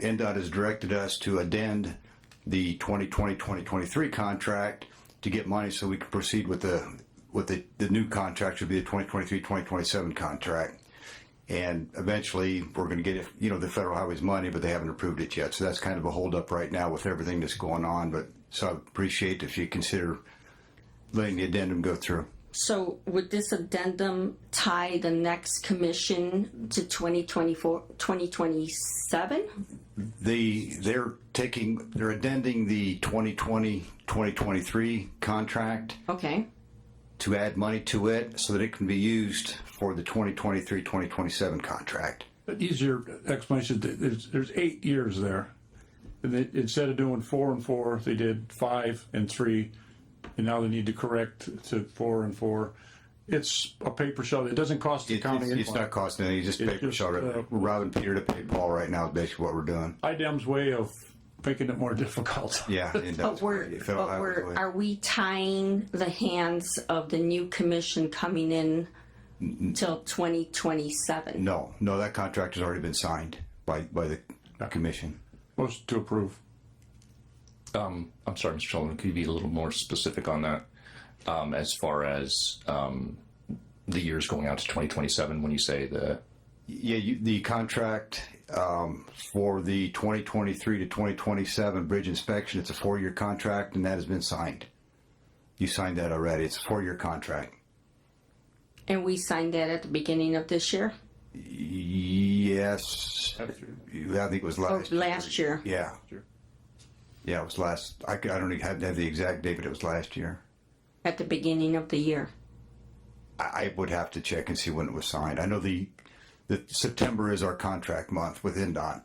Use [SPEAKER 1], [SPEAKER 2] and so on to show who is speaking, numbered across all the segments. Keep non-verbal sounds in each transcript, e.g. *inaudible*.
[SPEAKER 1] NDOT has directed us to addend the 2020-2023 contract to get money so we can proceed with the, with the, the new contract should be the 2023-2027 contract. And eventually, we're gonna get, you know, the federal highways money, but they haven't approved it yet. So that's kind of a holdup right now with everything that's going on, but, so I appreciate if you consider letting the addendum go through.
[SPEAKER 2] So would this addendum tie the next commission to 2024, 2027?
[SPEAKER 1] The, they're taking, they're addending the 2020-2023 contract
[SPEAKER 2] Okay,
[SPEAKER 1] to add money to it so that it can be used for the 2023-2027 contract.
[SPEAKER 3] easier explanation, th- there's, there's eight years there. And they, instead of doing four and four, they did five and three, and now they need to correct to four and four. It's a paper shell, it doesn't cost the
[SPEAKER 1] It-
[SPEAKER 3] county
[SPEAKER 1] It's, it's
[SPEAKER 3] anything.
[SPEAKER 1] not costing anything, just paper
[SPEAKER 3] just, uh,
[SPEAKER 1] short, robbing Peter to pay Paul right now is basically what we're doing.
[SPEAKER 3] IDEM's way of making it more *laughs* difficult.
[SPEAKER 1] Yeah. and
[SPEAKER 2] but
[SPEAKER 1] that's-
[SPEAKER 2] we're,
[SPEAKER 1] if I-
[SPEAKER 2] but
[SPEAKER 1] I was
[SPEAKER 2] we're,
[SPEAKER 1] going-
[SPEAKER 2] are we tying the hands of the new commission coming in till 2027?
[SPEAKER 1] No, no, that contract has already been signed by, by the commission.
[SPEAKER 3] Motion to approve.
[SPEAKER 4] Um, I'm sorry, Mr. Sullivan, could you be a little more specific on that? Um, as far as, um, the years going out to 2027, when you say the,
[SPEAKER 1] Yeah, you, the contract, um, for the 2023 to 2027 bridge inspection, it's a four-year contract and that has been signed. You signed that already. It's a four-year contract.
[SPEAKER 2] And we signed that at the beginning of this year,
[SPEAKER 1] Yes, I think it was
[SPEAKER 2] or
[SPEAKER 1] last.
[SPEAKER 2] last year?
[SPEAKER 1] Yeah. Yeah, it was last, I could- I don't even have have the exact date, but it was last year.
[SPEAKER 2] At the beginning of the year?
[SPEAKER 1] I, I would have to check and see when it was signed. I know the, the September is our contract month with NDOT.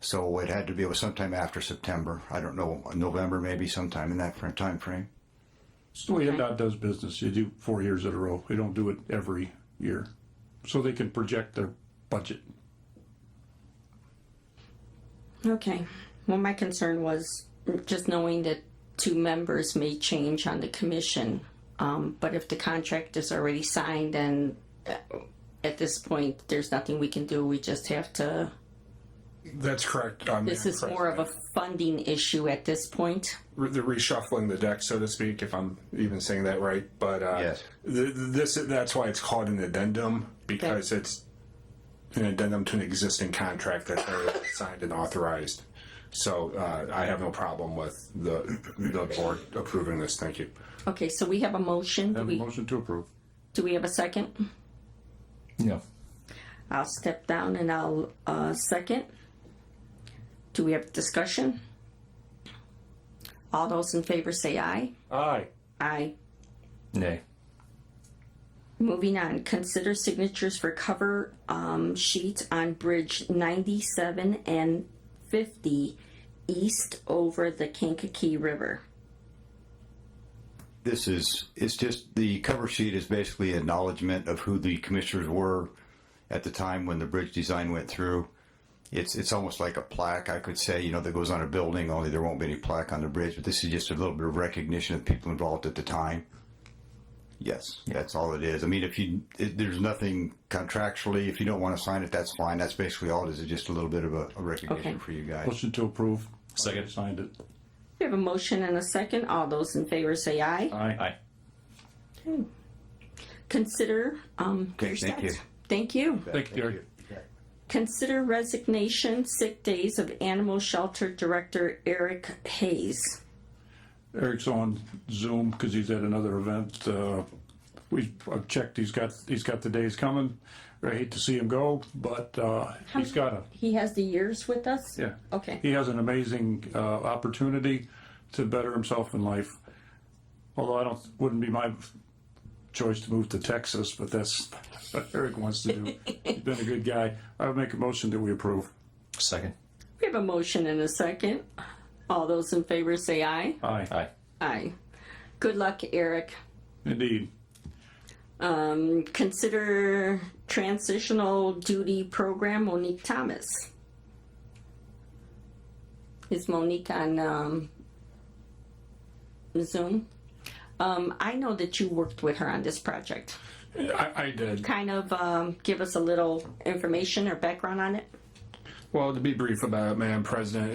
[SPEAKER 1] So it had to be, it was sometime after September. I don't know, November maybe sometime in that fr- time frame.
[SPEAKER 3] It's the way NDOT does business, you do four years in a row, they don't do it every year. So they can project their budget.
[SPEAKER 2] Okay. Well, my concern was just knowing that two members may change on the commission. Um, but if the contract is already signed, then uh, at this point, there's nothing we can do. We just have to,
[SPEAKER 5] That's correct. um,
[SPEAKER 2] this is
[SPEAKER 5] Madam
[SPEAKER 2] more of a
[SPEAKER 5] President.
[SPEAKER 2] funding issue at this point.
[SPEAKER 5] Re- They're reshuffling the deck, so to speak, if I'm even saying that right. But uh,
[SPEAKER 1] Yes.
[SPEAKER 5] th- th- this that's why it's called an addendum because it's an addendum to an existing contract that's already signed and authorized. So uh, I have no problem with the the board approving this. Thank you.
[SPEAKER 2] Okay, so we have a motion. Do
[SPEAKER 3] Have a
[SPEAKER 2] we,
[SPEAKER 3] motion to approve.
[SPEAKER 2] do we have a second?
[SPEAKER 4] no,
[SPEAKER 2] I'll step down and I'll uh, second. Do we have discussion? All those in favor say aye.
[SPEAKER 3] Aye.
[SPEAKER 2] Aye.
[SPEAKER 4] nay,
[SPEAKER 2] Moving on, consider signatures for cover um, sheets on Bridge 97 and 50 east over the Kankakee River.
[SPEAKER 1] This is, it's just, the cover sheet is basically acknowledgement of who the commissioners were at the time when the bridge design went through. It's, it's almost like a plaque, I could say, you know, that goes on a building, only there won't be any plaque on the bridge, but this is just a little bit of recognition of people involved at the time. Yes, that's all it is. I mean, if you, it, there's nothing contractually, if you don't want to sign it, that's fine. That's basically all it is, it's just a little bit of a, a recognition
[SPEAKER 2] Okay.
[SPEAKER 1] for you guys.
[SPEAKER 3] Motion to approve.
[SPEAKER 4] Second.
[SPEAKER 3] Signed it.
[SPEAKER 2] We have a motion and a second. All those in favor say aye.
[SPEAKER 3] Aye.
[SPEAKER 4] aye.
[SPEAKER 2] Consider. Um,
[SPEAKER 1] Okay,
[SPEAKER 2] your
[SPEAKER 1] thank you.
[SPEAKER 2] stats. Thank you.
[SPEAKER 3] Thank you, Gary.
[SPEAKER 2] Consider resignation, sick days of Animal Shelter Director Eric Hayes.
[SPEAKER 3] Eric's on Zoom because he's at another event. Uh, we I've checked. He's got he's got the days coming. I hate to see him go, but uh, he's got a
[SPEAKER 2] He has the years with us?
[SPEAKER 3] yeah.
[SPEAKER 2] Okay.
[SPEAKER 3] He has an amazing uh, opportunity to better himself in life. Although I don't wouldn't be my choice to move to Texas, but that's *laughs* what Eric wants to do. he's been a good guy. I would make a motion that we approve.
[SPEAKER 4] Second,
[SPEAKER 2] We have a motion and a second. All those in favor say aye.
[SPEAKER 3] Aye,
[SPEAKER 4] aye,
[SPEAKER 2] Aye. Good luck, Eric.
[SPEAKER 3] indeed.
[SPEAKER 2] Um, consider transitional duty program Monique Thomas. Is Monique on um, Zoom? Um, I know that you worked with her on this project.
[SPEAKER 5] I, I did.
[SPEAKER 2] Kind of um, give us a little information or background on it.
[SPEAKER 5] Well, to be brief about it, Madam President,